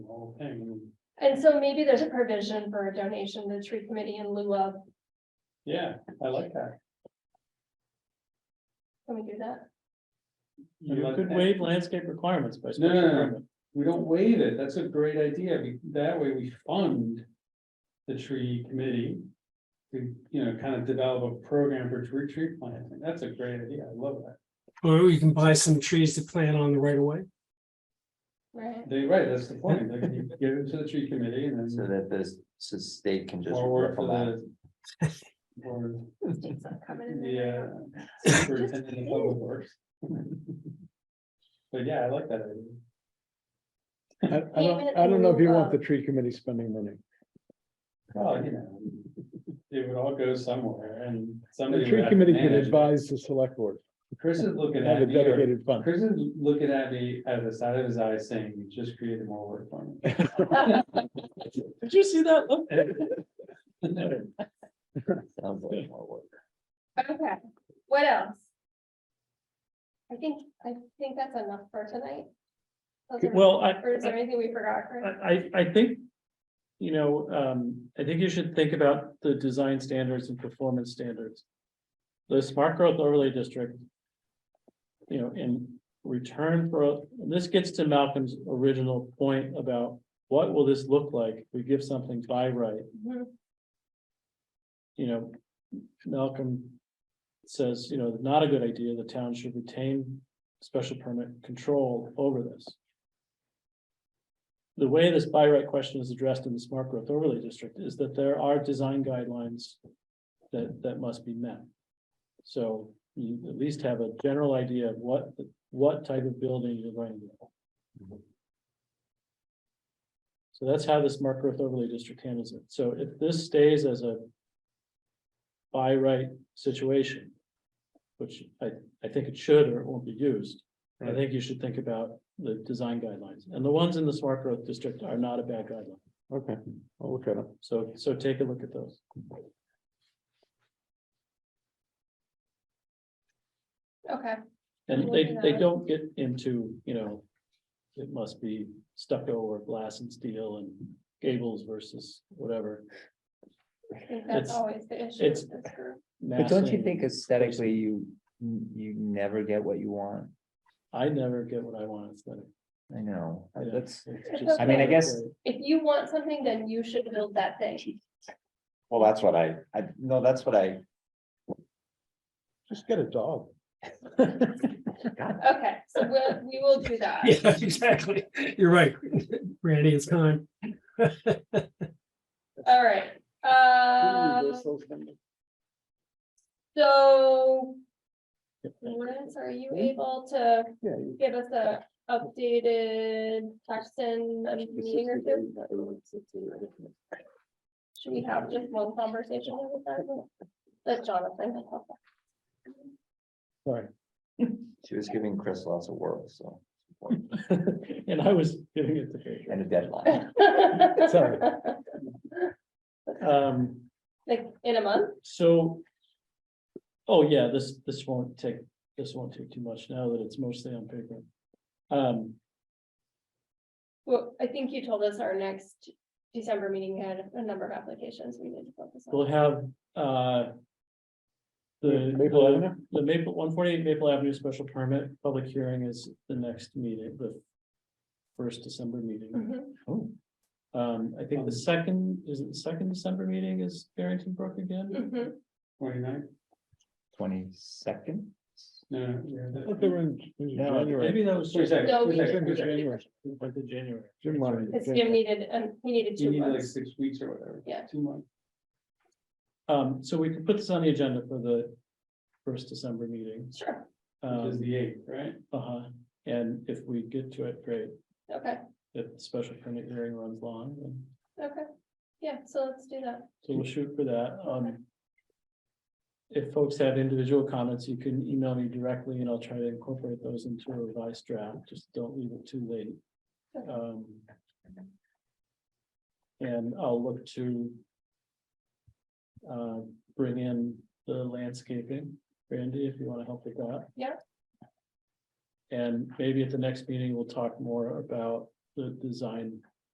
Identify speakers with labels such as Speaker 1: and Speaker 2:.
Speaker 1: whole thing.
Speaker 2: And so maybe there's a provision for a donation to the tree committee in lieu of,
Speaker 1: Yeah, I like that.
Speaker 2: can we do that?
Speaker 3: You could waive landscape requirements by special
Speaker 1: No, no, no.
Speaker 3: permit.
Speaker 1: We don't waive it. That's a great idea. Be- That way we fund the tree committee. To, you know, kind of develop a program for tree, tree planting. That's a great idea. I love that.
Speaker 4: Or we can buy some trees to plant on the right of way.
Speaker 2: Right,
Speaker 1: They, right, that's the point. They can give it to the tree committee and
Speaker 5: So
Speaker 1: then.
Speaker 5: that this, so state can just.
Speaker 1: forward
Speaker 5: ripple
Speaker 1: for
Speaker 5: that.
Speaker 1: the- Or,
Speaker 2: states not coming in
Speaker 1: yeah.
Speaker 2: there.
Speaker 1: Superintendent of Public Works. But yeah, I like that idea.
Speaker 6: I, I don't, I don't know if you want the tree committee spending money.
Speaker 1: Well, you know. It would all go somewhere and somebody. would
Speaker 6: The tree
Speaker 1: have to
Speaker 6: committee can
Speaker 1: manage it.
Speaker 6: advise the select board,
Speaker 1: Chris is looking
Speaker 6: have
Speaker 1: at
Speaker 6: a
Speaker 1: me, or-
Speaker 6: dedicated fund.
Speaker 1: Chris is looking at me out of the side of his eyes saying, you just created more work for me.
Speaker 3: Did you see that? Look,
Speaker 5: Sounds like more work.
Speaker 2: Okay, what else? I think, I think that's enough for tonight. Those are-
Speaker 3: Well, uh, I-
Speaker 2: Or is there anything we forgot? Chris?
Speaker 3: I, I, I think. You know, um, I think you should think about the design standards and performance standards. The smart growth overlay district. You know, in return for, and this gets to Malcolm's original point about what will this look like? if We give something by right.
Speaker 2: Mhm.
Speaker 3: you know, Malcolm says, you know, not a good idea, the town should retain special permit control over this. The way this by right question is addressed in the smart growth overlay district is that there are design guidelines that, that must be met. So you at least have a general idea of what, what type of building you're going to do. So that's how the smart growth overlay district handles it. So if this stays as a by right situation. Which I, I think it should or it won't be used. I
Speaker 1: Right.
Speaker 3: think you should think about the design guidelines and the ones in the smart growth district are not a bad guideline.
Speaker 6: Okay, I'll look at it.
Speaker 3: So, so take a look at those.
Speaker 2: Okay,
Speaker 3: And
Speaker 2: We'll
Speaker 3: they,
Speaker 2: do
Speaker 3: they
Speaker 2: that.
Speaker 3: don't get into, you know, it must be stucco or glass and steel and gables versus whatever.
Speaker 2: I think that's
Speaker 3: It's-
Speaker 2: always the issue.
Speaker 3: it's-
Speaker 2: with this group.
Speaker 5: But don't you
Speaker 3: massing.
Speaker 5: think aesthetically you, you never get what you want?
Speaker 3: I never get what I want. It's like,
Speaker 5: I know,
Speaker 3: Yeah.
Speaker 5: that's,
Speaker 3: it's just
Speaker 2: I mean, I
Speaker 3: not
Speaker 5: guess-
Speaker 3: great.
Speaker 2: If you want something, then you should build that thing.
Speaker 5: well, that's what I, I, no, that's what I,
Speaker 6: Just get a dog.
Speaker 2: Okay, so we'll, we will do that.
Speaker 4: Yeah, exactly. You're right. Randy, it's time.
Speaker 2: All right, uh, so. Lawrence, are you able to
Speaker 6: Hmm? Yeah.
Speaker 2: give us a updated text in a meeting or two? Should we have just one conversation with that? That's Jonathan.
Speaker 5: she was giving Chris lots of work, so.
Speaker 3: And I was giving it to Pedro.
Speaker 5: And a deadline,
Speaker 6: Sorry.
Speaker 3: Um,
Speaker 2: Like in a month?
Speaker 3: so. Oh, yeah, this, this won't take, this won't take too much now that it's mostly on paper. Um,
Speaker 2: Well, I think you told us our next December meeting had a number of applications we need to focus on.
Speaker 3: we'll have, uh. The,
Speaker 6: Maple
Speaker 3: the-
Speaker 6: Avenue?
Speaker 3: the Maple, one forty-eight Maple Avenue special permit, public hearing is the next meeting, the. First December meeting,
Speaker 2: Mhm.
Speaker 5: Oh,
Speaker 3: um, I think the second, is it the second December meeting is Barrington Brook again?
Speaker 2: Mhm.
Speaker 1: Twenty-nine,
Speaker 5: twenty-second?
Speaker 1: no, no, yeah.
Speaker 6: Thought they were in- in
Speaker 3: No,
Speaker 6: January.
Speaker 3: maybe that was.
Speaker 1: Wait a second,
Speaker 2: No,
Speaker 1: wait a
Speaker 2: we-
Speaker 1: second,
Speaker 6: January.
Speaker 1: wait a second.
Speaker 3: Like the January.
Speaker 6: Jim wanted
Speaker 2: Cause
Speaker 6: to-
Speaker 2: Jim needed, um, he needed
Speaker 1: You
Speaker 2: two
Speaker 1: need like
Speaker 2: months.
Speaker 1: six weeks or whatever.
Speaker 2: Yeah.
Speaker 1: Two months.
Speaker 3: Um, so we could put this on the agenda for the first December meeting.
Speaker 2: Sure,
Speaker 1: Which is
Speaker 3: Um,
Speaker 1: the eighth, right?
Speaker 3: uh-huh, and if we get to it, great.
Speaker 2: okay,
Speaker 3: If the special permit hearing runs long, then,
Speaker 2: okay. Yeah, so let's do that.
Speaker 3: so we'll shoot for that, um. If folks have individual comments, you can email me directly and I'll try to incorporate those into a revised draft, just don't leave it too late. Um. And I'll look to. Uh, bring in the landscaping, Randy, if you wanna help with that.
Speaker 2: Yeah.
Speaker 3: And maybe at the next meeting, we'll talk more about the design